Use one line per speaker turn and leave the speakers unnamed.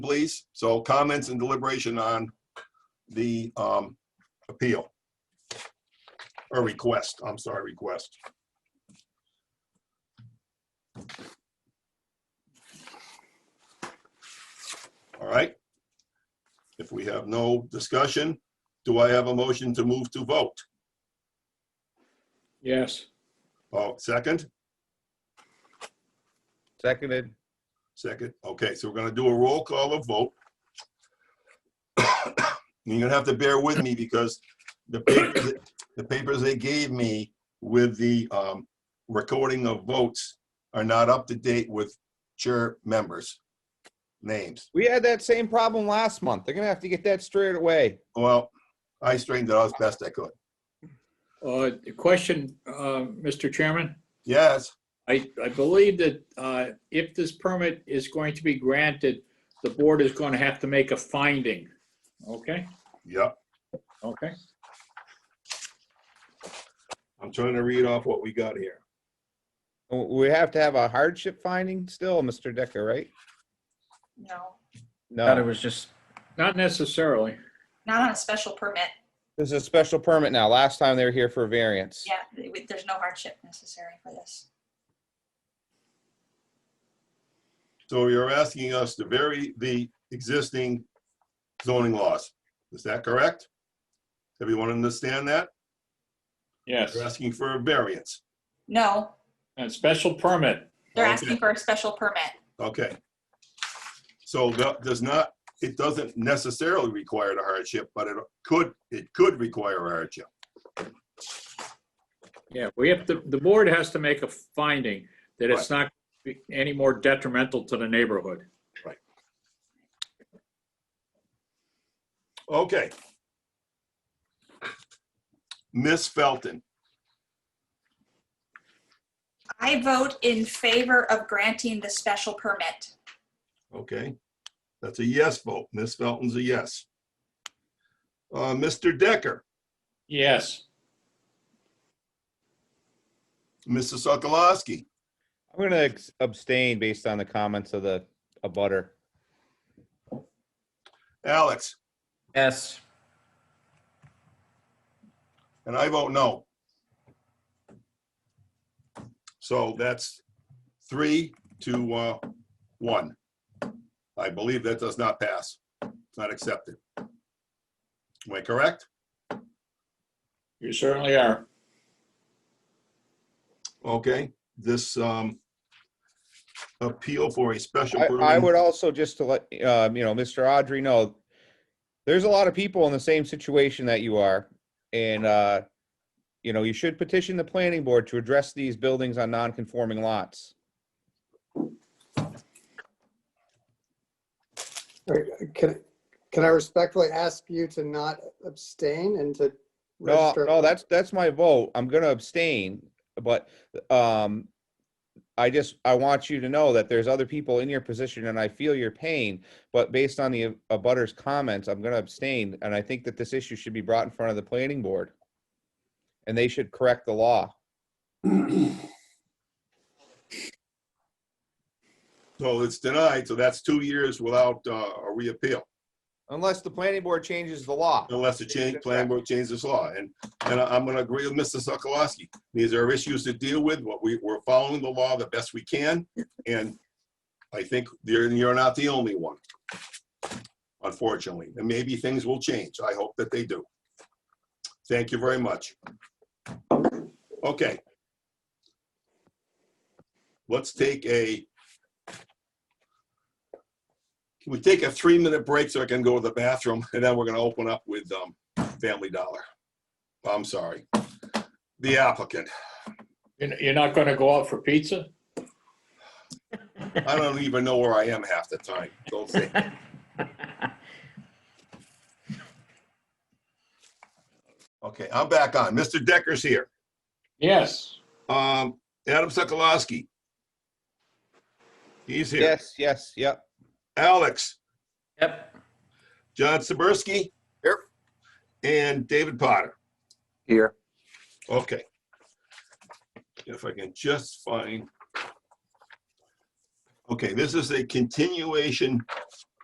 please. So comments and deliberation on the um, appeal. Or request, I'm sorry, request. All right. If we have no discussion, do I have a motion to move to vote?
Yes,
Oh, second?
Seconded,
Second, okay, so we're gonna do a roll call of vote. You're gonna have to bear with me because the papers, the papers they gave me with the um, recording of votes are not up to date with chair members' names.
we had that same problem last month. They're gonna have to get that straight away.
Well, I straightened it out as best I could.
uh, the question, uh, Mr. Chairman,
Yes,
I, I believe that, uh, if this permit is going to be granted, the board is going to have to make a finding. Okay,
yep,
okay.
I'm trying to read off what we got here.
W- We have to have a hardship finding still, Mr. Decker, right?
No,
Thought it
No,
was just,
Not necessarily.
not on a special permit.
this is a special permit now. Last time they were here for a variance.
Yeah, it- there's no hardship necessary for this.
So you're asking us to vary the existing zoning laws. Is that correct? Everyone understand that?
Yes,
They're asking for a variance.
No,
a special permit.
they're
Okay.
asking for a special permit.
Okay. So that does not, it doesn't necessarily require the hardship, but it could, it could require a hardship.
Yeah, we have to, the board has to make a finding that it's not be any more detrimental to the neighborhood.
Okay. Miss Felton,
I vote in favor of granting the special permit.
okay? That's a yes vote. Miss Felton's a yes. Uh, Mr. Decker,
Yes,
Mrs. Sokolowski,
I'm gonna ex- abstain based on the comments of the, a butter.
Alex,
yes,
and I vote no. So that's three to uh, one. I believe that does not pass. It's not accepted. Am I correct?
you certainly are.
Okay, this um, appeal for a special
I, I
permit.
would also just to let, um, you know, Mr. Audrey know, there's a lot of people in the same situation that you are. And, uh, you know, you should petition the planning board to address these buildings on non-conforming lots.
Can, can I respectfully ask you to not abstain and to
No,
register?
no, that's, that's my vote. I'm gonna abstain, but, um, I just, I want you to know that there's other people in your position and I feel your pain, but based on the abutters comments, I'm gonna abstain. And I think that this issue should be brought in front of the planning board. And they should correct the law.
So it's denied, so that's two years without uh, a reappeal,
Unless the planning board changes the law.
unless the change, plan board changes this law. And, and I- I'm going to agree with Mr. Sokolowski. These are issues to deal with, What we, we're following the law the best we can, and I think you're, you're not the only one, unfortunately. And maybe things will change. I hope that they do. Thank you very much. Okay. Let's take a, can we take a three-minute break so I can go to the bathroom? And then we're going to open up with um, Family Dollar. I'm sorry. The applicant.
You're you're not going to go out for pizza?
I don't even know where I am half the time. Don't say. Okay, I'm back on. Mr. Decker's here.
Yes.
Um, Adam Sokolowski. He's here.
Yes, yes, yep.
Alex,
yep,
John Saberski. Here. And David Potter.
Here.
Okay. If I can just find. Okay, this is a continuation